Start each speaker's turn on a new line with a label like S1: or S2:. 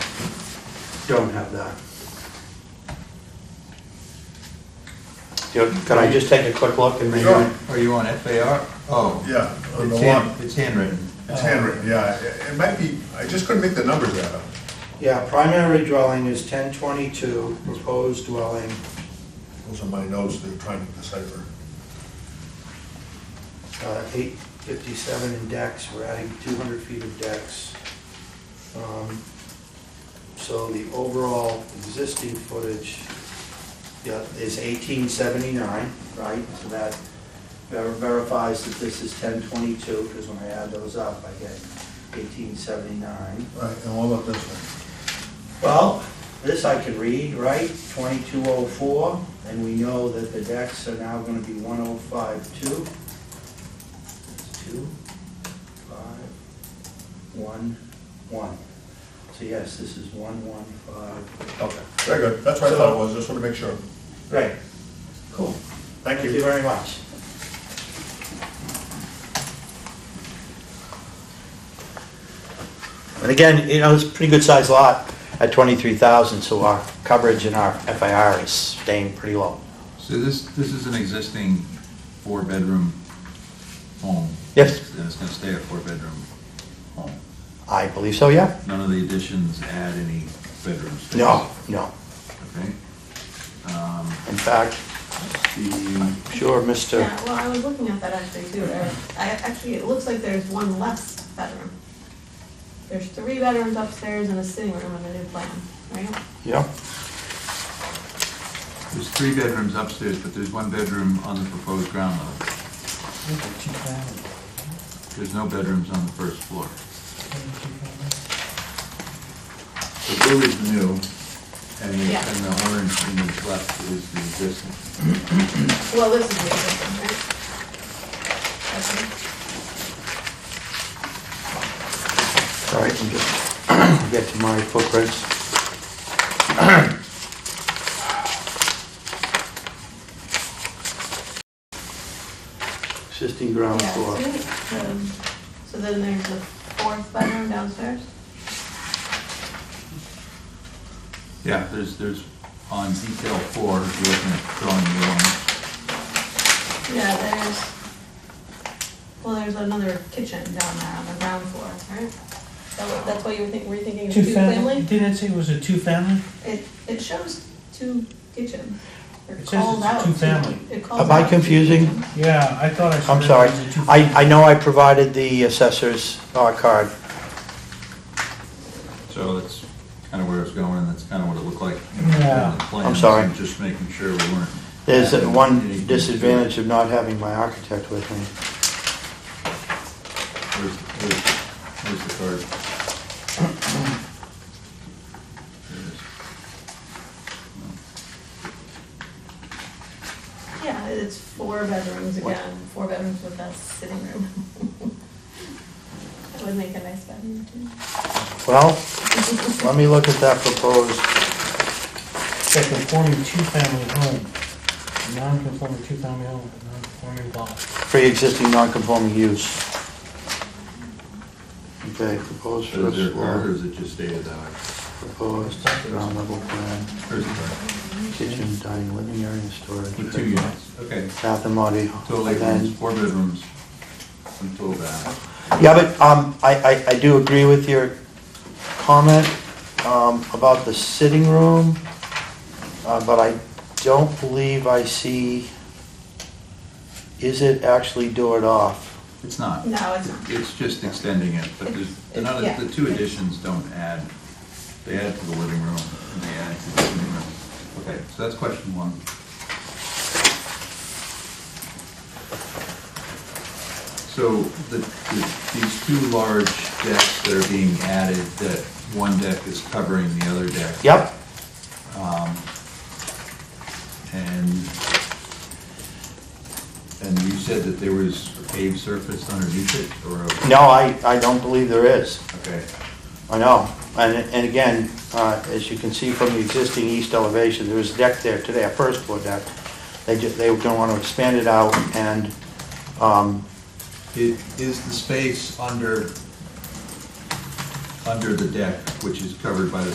S1: don't have that. You know, Can I just take a quick look and maybe?
S2: Sure.
S3: Are you on FAR? Oh.
S2: Yeah, on the Oh.
S3: It's hand-
S2: one.
S3: It's handwritten.
S2: It's handwritten, yeah, it- it might be, I just couldn't make the numbers out up.
S4: Yeah, primary dwelling is ten twenty-two, proposed dwelling,
S2: Those are my notes that are trying to decipher.
S4: uh, eight fifty-seven in decks, we're adding two hundred feet of decks. Um, So the overall existing footage, yeah, is eighteen seventy-nine, right? So that ver- verifies that this is ten twenty-two, because when I add those up, I get eighteen seventy-nine.
S2: Right, and what about this one?
S4: Well, this I could read, right, twenty-two oh four, and we know that the decks are now gonna be one oh five two. Two, five, one, one. So yes, this is one, one, five.
S2: Okay, very good, that's what I thought it was, just want to make sure.
S4: Right. Cool.
S2: Thank
S4: Thank you
S2: you.
S4: very much.
S1: And again, you know, it's a pretty good sized lot at twenty-three thousand, so our coverage and our FIR is staying pretty low.
S3: So this, this is an existing four-bedroom home?
S1: Yes.
S3: And it's gonna stay a four-bedroom home?
S1: I believe so, yeah?
S3: None of the additions add any bedroom space?
S1: No, no.
S3: Okay. Um,
S1: In fact,
S3: The,
S1: I'm sure Mr.
S5: Yeah, well, I was looking at that actually too, Eric. I, actually, it looks like there's one less bedroom. There's three bedrooms upstairs and a sitting room on the new plan, right?
S1: Yeah,
S3: there's three bedrooms upstairs, but there's one bedroom on the proposed ground level. There's no bedrooms on the first floor. The blue is new, and the,
S5: Yeah.
S3: and the orange in the left is the existing.
S5: Well, this is the existing, right? Okay.
S1: all right, I'm just, get to my footprints. Existing ground
S5: Yeah,
S1: floor.
S5: see? Um, So then there's the fourth bedroom downstairs?
S3: Yeah, there's, there's, on detail four, if you're looking at drawing one,
S5: Yeah, there's, well, there's another kitchen down there on the ground floor, right? That wa- That's why you were thinking, were you thinking of two-family?
S6: Didn't it say it was a two-family?
S5: It, it shows two kitchen. They're
S6: It says
S5: called
S6: it's a
S5: out
S6: two-family.
S5: two- it calls
S1: Am I
S5: out two
S1: confusing?
S5: kitchen.
S6: Yeah, I thought I saw.
S1: I'm
S6: that
S1: sorry,
S6: it was a two-
S1: I, I know I provided the assessor's uh, card.
S3: So that's kind of where it's going, and that's kind of what it looked like. in the
S6: Yeah.
S3: plans,
S1: I'm sorry.
S3: and Just making sure we weren't.
S1: There's
S3: adding
S1: one
S3: anything to it.
S1: disadvantage of not having my architect with me.
S3: Where's, where's, where's the card? There it is.
S5: Yeah, it's four bedrooms again, four bedrooms with a sitting room. That would make a nice bedroom too.
S1: Well, let me look at that proposed,
S6: It's a conforming two-family home, non-conforming two-family home, non-conforming block.
S1: pre-existing non-conforming use. Okay, proposed
S3: So is
S1: first
S3: there a card, or
S1: floor,
S3: is it just stated that? way?
S1: proposed ground level plan,
S3: There's the card.
S1: kitchen, dining, living area, and storage.
S3: With two units, okay.
S1: Bath and body.
S3: Total eight rooms, four bedrooms, and total bath.
S1: Yeah, but um, I, I, I do agree with your comment um, about the sitting room, uh, but I don't believe I see, is it actually doored off?
S3: It's not.
S5: No, it's not.
S3: It's just extending it, but there's,
S5: It's-
S3: none
S5: yeah.
S3: of, the two additions don't add, they add to the living room, and they add to the living room. Okay, so that's question one. So the, the- these two large decks that are being added, that one deck is covering the other deck.
S1: Yep,
S3: Um, And, and you said that there was a paved surface underneath it, or a?
S1: no, I, I don't believe there is.
S3: Okay,
S1: I know, and, and again, uh, as you can see from the existing east elevation, there is a deck there today, a first floor deck. They ju, they don't want to expand it out, and, um,
S3: It is the space under, under the deck, which is covered by the